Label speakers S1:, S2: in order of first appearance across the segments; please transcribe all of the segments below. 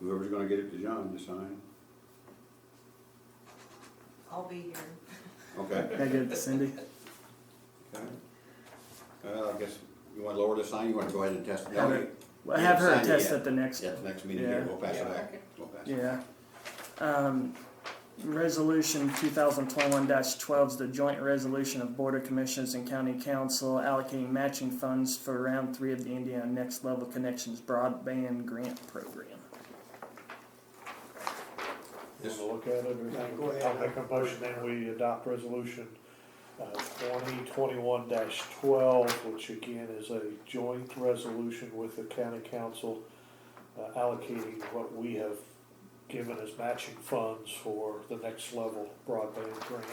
S1: whoever's gonna get it to John to sign.
S2: I'll be here.
S1: Okay.
S3: Can I get it to Cindy?
S1: Okay. Uh, I guess, you wanna lower the sign, you wanna go ahead and test it?
S3: Have her- Well, have her
S1: Sign it
S3: test
S1: yet.
S3: at the next.
S1: At the next meeting here, we'll pass it
S4: Yeah.
S1: back. We'll pass it.
S3: Yeah. Um, resolution two thousand twenty-one twelve is the joint resolution of Board of Commissioners and County Council allocating matching funds for round three of the Indiana Next Level Connections Broadband Grant Program.
S1: This-
S5: Want to look at it or?
S4: Yeah, go ahead.
S5: I'll make a motion that we adopt resolution uh, twenty twenty-one twelve, which again is a joint resolution with the county council uh, allocating what we have given as matching funds for the next level broadband grant.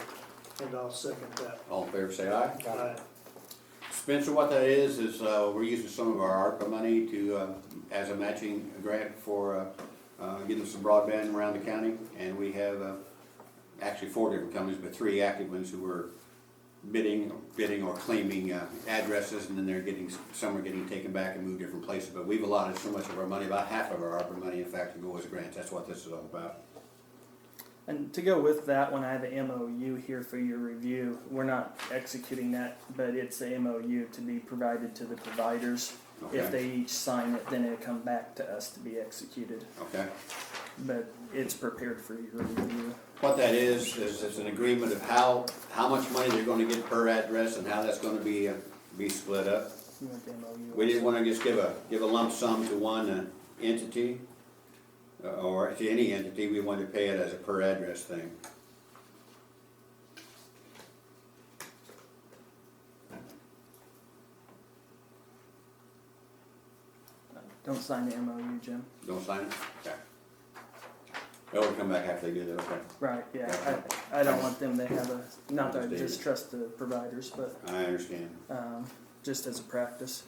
S4: And I'll second that.
S1: All in favor, say aye.
S4: Aye.
S1: Spencer, what that is, is uh, we're using some of our ARPA money to, uh, as a matching grant for uh, uh, getting some broadband around the county. And we have uh, actually four different companies, but three active ones who are bidding, bidding or claiming uh, addresses. And then they're getting, some are getting taken back and moved different places. But we've allotted so much of our money, about half of our ARPA money, in fact, to go as grants. That's what this is all about.
S3: And to go with that one, I have an MOU here for your review. We're not executing that, but it's a MOU to be provided to the providers. If
S1: Okay,
S3: they each sign it, then it'll come back to us to be executed,
S1: okay.
S3: but it's prepared for your review.
S1: What that is, is it's an agreement of how, how much money they're gonna get per address and how that's gonna be, uh, be split up.
S3: You want the MOU?
S1: We didn't wanna just give a, give a lump sum to one uh, entity, uh, or to any entity, we wanted to pay it as a per address thing.
S3: Don't sign the MOU, Jim.
S1: Don't sign it? Okay. They'll come back after they do that, okay.
S3: Right, yeah, I, I don't want them to have a, not that I distrust the providers, but,
S1: I understand.
S3: um, just as a practice.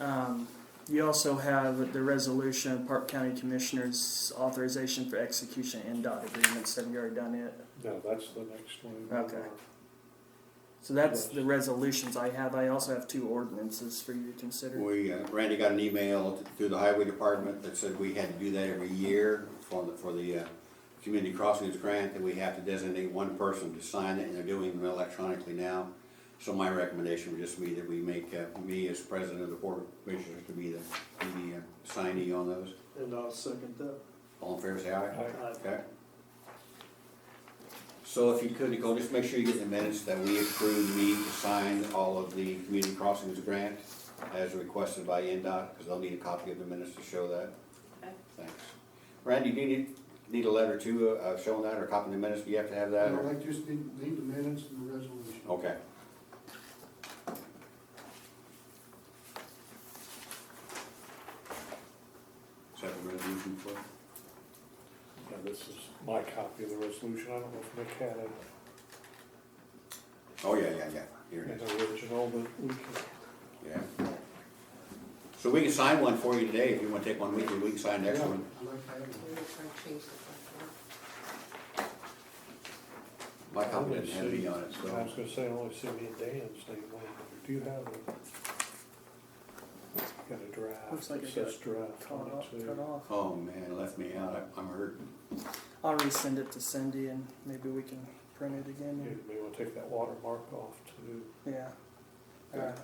S3: Um, you also have the resolution of Park County Commissioners authorization for execution and dot agreements, have you already done it?
S5: No, that's the next one.
S3: Okay. So that's the resolutions I have, I also have two ordinances for you to consider.
S1: We, uh, Randy got an email through the highway department that said we had to do that every year for the, for the, uh, community crossings grant, that we have to designate one person to sign it, and they're doing it electronically now. So my recommendation would just be that we make, uh, me as president of the board of commissioners to be the, be the uh, signee on those.
S4: And I'll second that.
S1: All in favor, say aye.
S4: Aye.
S1: Okay. So if you could, Nicole, just make sure you get the minutes that we approved me to sign all of the community crossings grant as requested by NDOT, because they'll need a copy of the minutes to show that.
S2: Okay.
S1: Thanks. Randy, do you need, need a letter too, uh, showing that or copying the minutes? Do you have to have that? or-
S6: I just need, need the minutes and the resolution.
S1: Okay. Is that the resolution for? it?
S5: Yeah, this is my copy of the resolution. I don't know if Nick had it
S1: Oh, yeah, yeah, yeah. Here it
S5: in
S1: is.
S5: the original, but we can.
S1: Yeah. So we can sign one for you today, if you wanna take one with you, we can sign next one.
S6: I like to have it.
S2: We're trying to change the
S1: My copy doesn't have any on it,
S5: I
S1: so.
S5: was gonna say, I only see me and Dan's name on it. Do you have a? Got a draft.
S3: Looks like
S5: It
S3: I
S5: says
S3: got
S5: draft
S3: Cut
S5: on
S3: off,
S5: it too.
S3: cut off.
S1: Oh man, left me out, I- I'm hurt.
S3: I'll resend it to Cindy and maybe we can print it again,
S5: You
S3: and-
S5: may wanna take that watermark off too.
S3: yeah. Alright.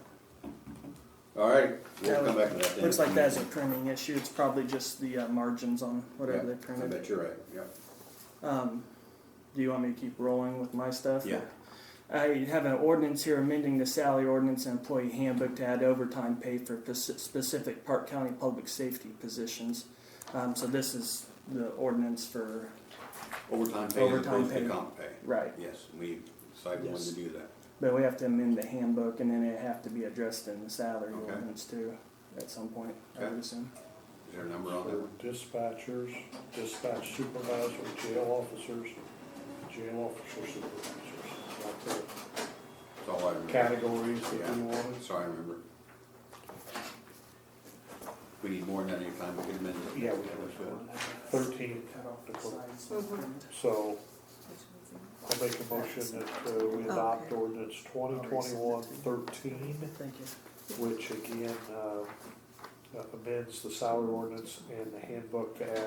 S1: All right, we'll come back to that then.
S3: Looks like that's a printing issue, it's probably just the uh, margins on
S1: Yeah,
S3: whatever they
S1: I
S3: printed.
S1: bet you're right, yeah.
S3: Um, do you want me to keep rolling with my stuff?
S1: Yeah.
S3: I have an ordinance here amending the salary ordinance and employee handbook to add overtime pay for pes- specific Park County public safety positions. Um, so this is the ordinance for,
S1: Overtime pay as
S3: Overtime
S1: opposed to
S3: pay.
S1: comp pay.
S3: right,
S1: Yes, we decided we wanted to do that.
S3: but we have to amend the handbook and then it have to be addressed in the salary
S1: Okay.
S3: ordinance too, at some point, I
S1: Okay.
S3: would assume.
S1: Is there a number on that one?
S5: Dispatchers, dispatch supervisor, jail officers, jail officer supervisors. Like the
S1: That's all I remember.
S5: Categories that
S1: Yeah.
S5: we wanted.
S1: Sorry, I remember. We need more than that anytime, we can amend it.
S5: Yeah, we have thirteen. So I'll make a motion that uh, we adopt
S2: Okay.
S5: ordinance twenty twenty-one thirteen.
S3: Thank you.
S5: which again uh, amends the salary ordinance and the handbook to add